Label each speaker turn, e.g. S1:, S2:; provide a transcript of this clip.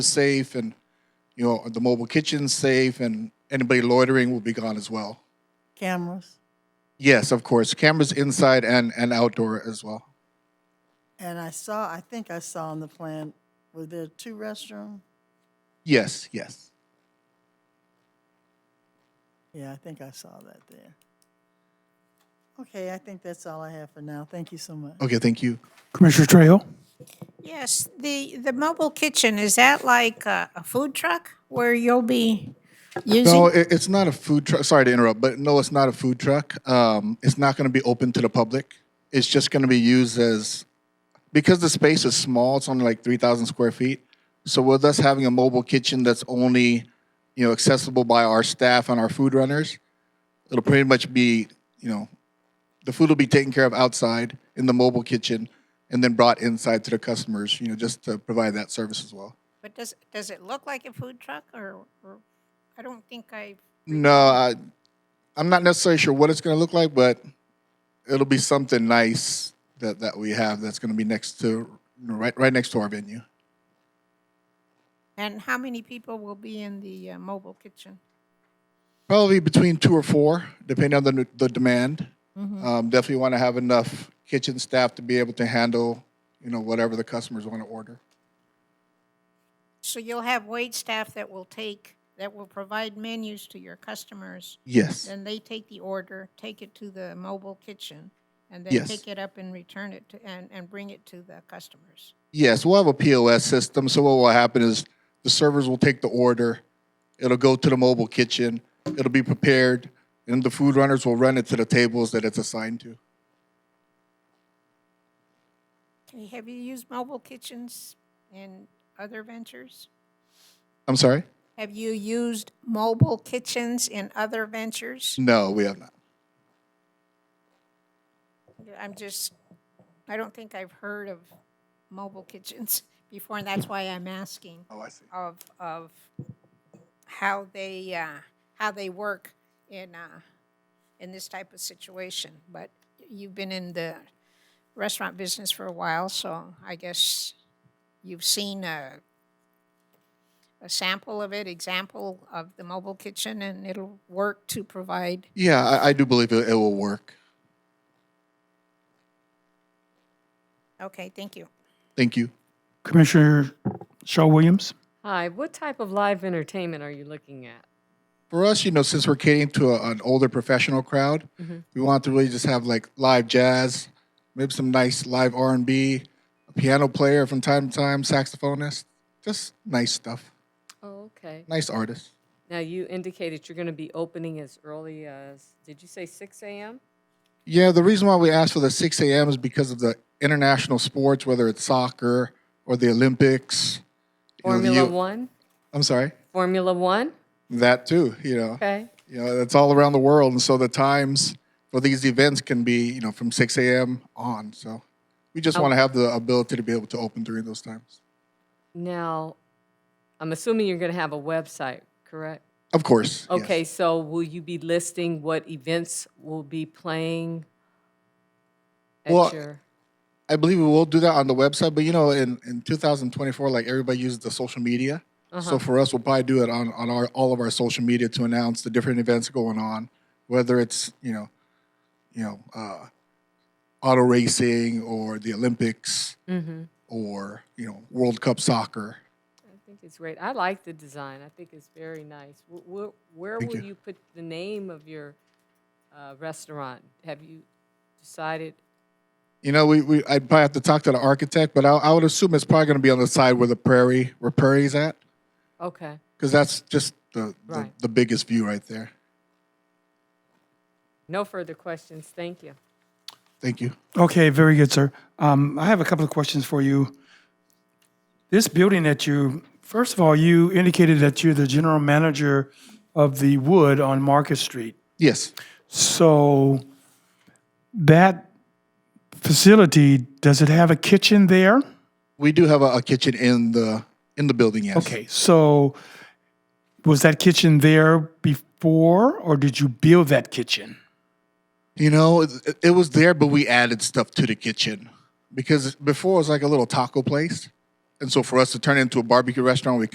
S1: safe and you know the mobile kitchen's safe and anybody loitering will be gone as well
S2: cameras,
S1: yes of course cameras inside and and outdoor as well
S2: and I saw, I think I saw on the plan, were there two restrooms?
S1: yes yes
S2: Yeah, I think I saw that there. Okay, I think that's all I have for now. Thank you so much.
S1: okay thank you
S3: Commissioner Trejo?
S4: Yes, the, the mobile kitchen, is that like a, a food truck where you'll be
S1: no
S4: using?
S1: it, it's not a food truck sorry to interrupt but no it's not a food truck um, it's not going to be open to the public it's just going to be used as because the space is small it's only like 3000 square feet so with us having a mobile kitchen that's only you know accessible by our staff and our food runners it'll pretty much be you know the food will be taken care of outside in the mobile kitchen and then brought inside to the customers you know just to provide that service as well
S4: But does, does it look like a food truck or, or, I don't think I,
S1: No, I, I'm not necessarily sure what it's going to look like, but it'll be something nice that, that we have that's going to be next to you know, right right next to our venue.
S4: and how many people will be in the uh, mobile kitchen?
S1: Probably between two or four, depending on the the demand. Um, definitely want to have enough kitchen staff to be able to handle you know whatever the customers want to order.
S4: So you'll have wait staff that will take, that will provide menus to your customers,
S1: Yes,
S4: then they take the order, take it to the mobile kitchen, and
S1: Yes.
S4: then pick it up and return it to, and, and bring it to the customers.
S1: yes, we'll have a POS system. So what will happen is the servers will take the order, it'll go to the mobile kitchen, it'll be prepared, and the food runners will run it to the tables that it's assigned to.
S4: Okay, have you used mobile kitchens in other ventures?
S1: I'm sorry?
S4: Have you used mobile kitchens in other ventures?
S1: No, we have not.
S4: I'm just, I don't think I've heard of mobile kitchens before, and that's why I'm asking
S1: Oh, I see.
S4: of, of how they, uh, how they work in, uh, in this type of situation. But you've been in the restaurant business for a while, so I guess you've seen a, a sample of it, example of the mobile kitchen, and it'll work to provide
S1: Yeah, I, I do believe it, it will work.
S4: Okay, thank you.
S1: Thank you.
S3: Commissioner Shaw Williams?
S5: Hi, what type of live entertainment are you looking at?
S1: For us, you know, since we're catering to a, an older professional crowd, we want to really just have like live jazz, maybe some nice live R and B, a piano player from time to time, saxophonist, just nice stuff,
S5: Oh, okay.
S1: nice artists.
S5: Now, you indicated you're going to be opening as early as, did you say 6 a.m.?
S1: Yeah, the reason why we asked for the 6 a.m. is because of the international sports, whether it's soccer or the Olympics. you know, the
S5: Formula
S1: U-
S5: One?
S1: I'm sorry,
S5: Formula One?
S1: that too. You know.
S5: Okay.
S1: you know that's all around the world and so the times for these events can be you know from 6 a.m on so we just
S5: Oh.
S1: want to have the ability to be able to open during those times
S5: Now, I'm assuming you're going to have a website, correct?
S1: of course yes.
S5: Okay, so will you be listing what events will be playing at
S1: Well,
S5: your?
S1: i believe we will do that on the website but you know in, in 2024 like everybody uses the social media so for us we'll probably do it on, on our all of our social media to announce the different events going on whether it's you know you know uh, auto racing or the olympics
S5: mm-hmm.
S1: or you know world cup soccer
S5: I think it's great. I like the design. I think it's very nice. Wh- wh- Where will
S1: you.
S5: you put the name of your uh, restaurant? Have you decided?
S1: You know, we, we I'd probably have to talk to the architect, but I, I would assume it's probably going to be on the side where the prairie, where prairie's at,
S5: Okay.
S1: because that's just the,
S5: Right.
S1: the the biggest view right there.
S5: No further questions. Thank you.
S1: Thank you.
S3: Okay, very good, sir. Um, I have a couple of questions for you. This building that you, first of all, you indicated that you're the general manager of the Wood on Market Street.
S1: Yes,
S3: So that facility, does it have a kitchen there?
S1: we do have a, a kitchen in the in the building. Yes.
S3: Okay, so was that kitchen there before, or did you build that kitchen?
S1: You know, it, it- it was there, but we added stuff to the kitchen because before it was like a little taco place, and so for us to turn it into a barbecue restaurant, we